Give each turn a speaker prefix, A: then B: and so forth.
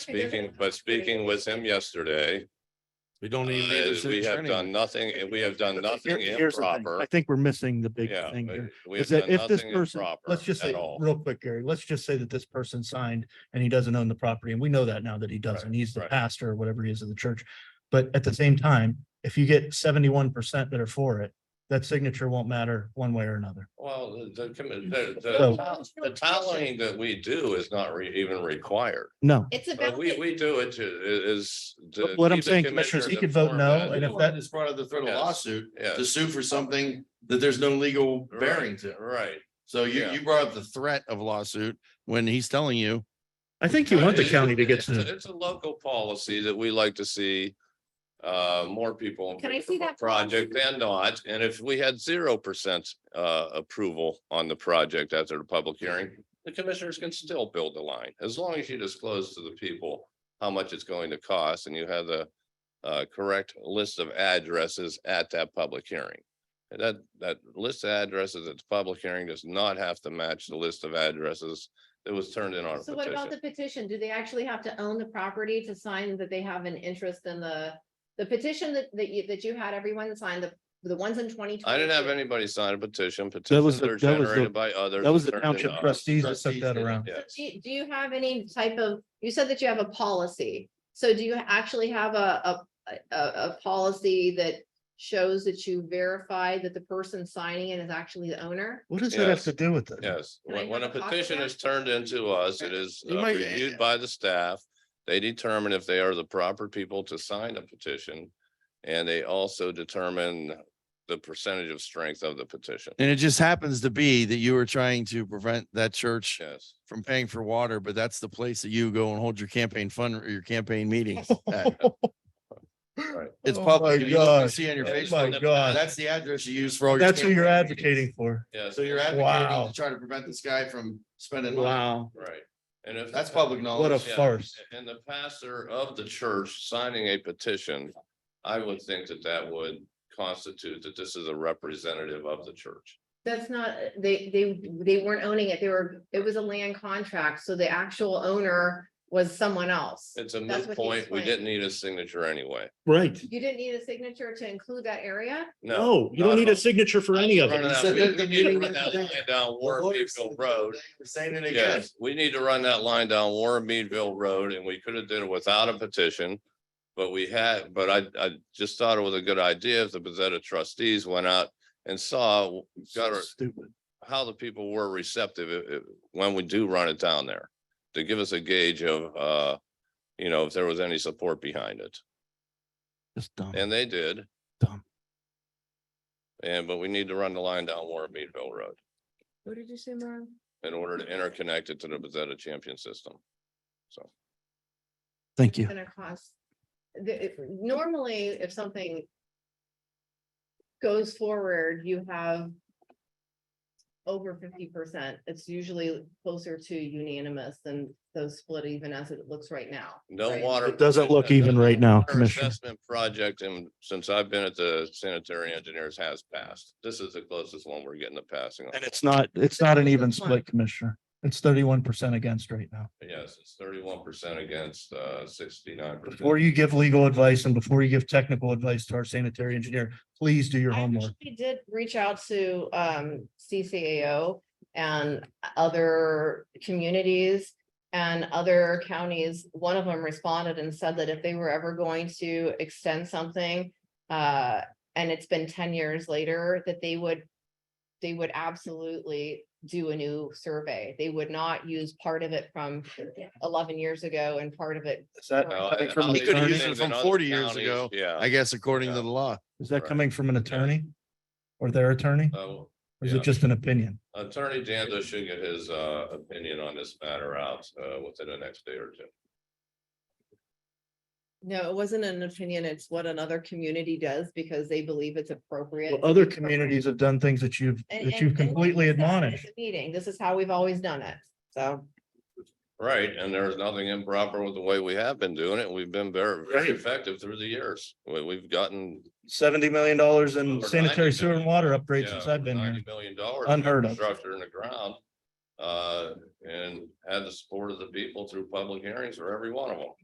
A: Speaking, but speaking with him yesterday,
B: We don't
A: uh,
B: even need a city
A: we have
B: attorney.
A: done nothing, we have done
C: Here-
A: nothing
C: here's the thing.
A: improper.
C: I think we're missing the big
A: Yeah,
C: thing
A: but
C: here.
A: we
C: is
A: have
C: that
A: done
C: if this
A: nothing
C: person-
A: improper
C: let's
A: at
C: just say,
A: all.
C: real quick, Gary, let's just say that this person signed and he doesn't own the property, and we know that now that he doesn't, he's the
A: right.
C: pastor or whatever he is of the church. But at the same time, if you get seventy-one percent that are for it, that signature won't matter one way or another.
A: Well, the- the, commi- the,
C: So-
A: the, tol- the toweling that we do is not re- even required.
C: No,
D: It's
A: But
D: about,
A: Uh, we,
D: the-
A: we do it to, is. to
C: But what I'm
A: keep the
C: saying, commissioners, he
A: commissioners
C: could vote no,
A: informed.
C: and if
B: Well,
C: that-
B: It's part of the threat of
A: Yes.
B: lawsuit
A: Yeah,
B: to sue for something that there's no legal bearing to.
A: right.
B: So you,
A: Yeah.
B: you brought up the threat of lawsuit when he's telling you,
C: I think you want the county to get
A: It's a-
C: to,
A: It's a local policy that we like to see uh, more people.
D: Can I see that
A: Project than not, and if we had zero percent uh, approval on the project after the public hearing, the commissioners can still build the line, as long as you disclose to the people how much it's going to cost and you have the uh, correct list of addresses at that public hearing. And That, that list of addresses at the public hearing does not have to match the list of addresses that was turned in on a
D: so what about
A: petition.
D: the petition? Do they actually have to own the property to sign that they have an interest in the, the petition that, that you, that you had everyone sign, the, the ones in twenty?
A: I didn't have anybody sign a petition.
C: That
A: Petitions
C: was the-
A: are
C: that was the-
A: generated by others.
C: that was
A: and
C: the
A: turned into
C: township
A: us.
C: trustees that took
B: Trustees
C: that
B: did it.
C: around.
A: Yeah.
D: Do you, do you have any type of, you said that you have a policy, so do you actually have a, a, a, a policy that shows that you verify that the person signing it is actually the owner?
C: What does that have
A: Yes.
C: to do with it?
A: Yes,
D: Can I
A: when, when a
D: have a copy of
A: petition
D: that?
A: is turned into us, it is
B: You
A: uh,
B: might-
A: reviewed by the staff. They determine if they are the proper people to sign a petition. And they also determine the percentage of strength of the petition.
B: and it just happens to be that you were trying to prevent that church
A: Yes,
B: from paying for water, but that's the place that you go and hold your campaign fund or your campaign meetings. at.
A: Oh
B: It's
C: Oh
B: public.
C: my
B: You don't
C: gosh.
B: See on your
A: Oh
B: Facebook.
C: My
A: that-
C: God,
B: That's the address you use for all. your
C: that's who you're
B: campaign meetings.
C: advocating for.
A: yes,
B: So you're advocating
C: Wow.
B: to try to prevent this guy from spending money.
C: Wow,
A: right. And if.
B: That's public knowledge.
C: what a
A: Yeah.
C: farce.
A: And the pastor of the church signing a petition, I would think that that would constitute that this is a representative of the church.
D: That's not, they, they, they weren't owning it, they were, it was a land contract, so the actual owner was someone else.
A: It's a
D: That's what
A: moot
D: he
A: point. We
D: explained.
A: didn't need a signature anyway.
E: Right.
D: You didn't need a signature to include that area?
A: No.
E: No, you
A: not
E: don't
A: at
E: need
A: all.
E: a signature for any of
A: Running
E: it.
B: He
A: out
B: said
A: of-
B: that the
A: we need to run
B: meeting was
A: that
B: down.
A: line Down
B: Well,
A: Warren
B: lawyers
A: Meadville
B: said the
A: Road.
B: thing, we're Saying it again.
A: Yes, we need to run that line down Warren Meadville Road and we could have did it without a petition. But we had, but I, I just thought it was a good idea if the Bezetta trustees went out and saw, got our-
C: Stupid.
A: how the people were receptive i- i- when we do run it down there. To give us a gauge of, uh, you know, if there was any support behind it.
C: Just dumb.
A: And they did.
C: Dumb.
A: And, but we need to run the line down Warren Meadville Road
D: What did you say, Mom?
A: in order to interconnect it to the Bezetta champion system. So.
C: Thank you.
D: Gonna cost. The, if- normally, if something. Goes forward, you have. Over fifty percent, it's usually closer to unanimous than those split even as it looks right now.
A: No
D: right?
A: water.
C: It doesn't look even right now,
A: Our
C: Commissioner.
A: Assessment project, and since I've been at the sanitary engineers has passed. This is the closest one we're getting to passing.
C: And it's not, it's not an even split, Commissioner. It's thirty-one percent against right now.
A: Yes, it's thirty-one percent against uh sixty-nine percent.
C: Before you give legal advice and before you give technical advice to our sanitary engineer, please do your
D: I
C: homework.
D: actually did reach out to um CCAO and other communities and other counties. One of them responded and said that if they were ever going to extend something, uh, and it's been ten years later, that they would they would absolutely do a new survey. They would not use part of it from eleven years ago and part of it.
C: Is that
D: No,
C: coming from an
B: they could've
C: attorney?
B: used it from 40 years ago.
A: Yeah.
B: I guess according to the law.
C: Is that coming from an attorney? Or their attorney?
A: So
C: Or is
A: Uh, yeah.
C: it just an opinion?
A: Attorney Dando should get his uh opinion on this matter out uh within the next day or two.
D: No, it wasn't an opinion. It's what another community does because they believe it's appropriate.
C: Well, other communities have done things that you've,
D: And-
C: that
D: and-
C: you've
D: and like
C: completely
D: you said, it's a
C: admonished.
D: Meeting, this is how we've always done it, so.
A: Right, and there's nothing improper with the way we have been doing it. We've been very, very
C: Right.
A: effective through the years. We we've gotten.
C: Seventy million dollars
A: over
C: in
A: 90
C: sanitary sewer and water upgrades
A: yeah,
C: since I've
A: over
C: been here.
A: $90 million dollars.
C: Unheard of.
A: Structure in the ground. Uh, and had the support of the people through public hearings for every one of them.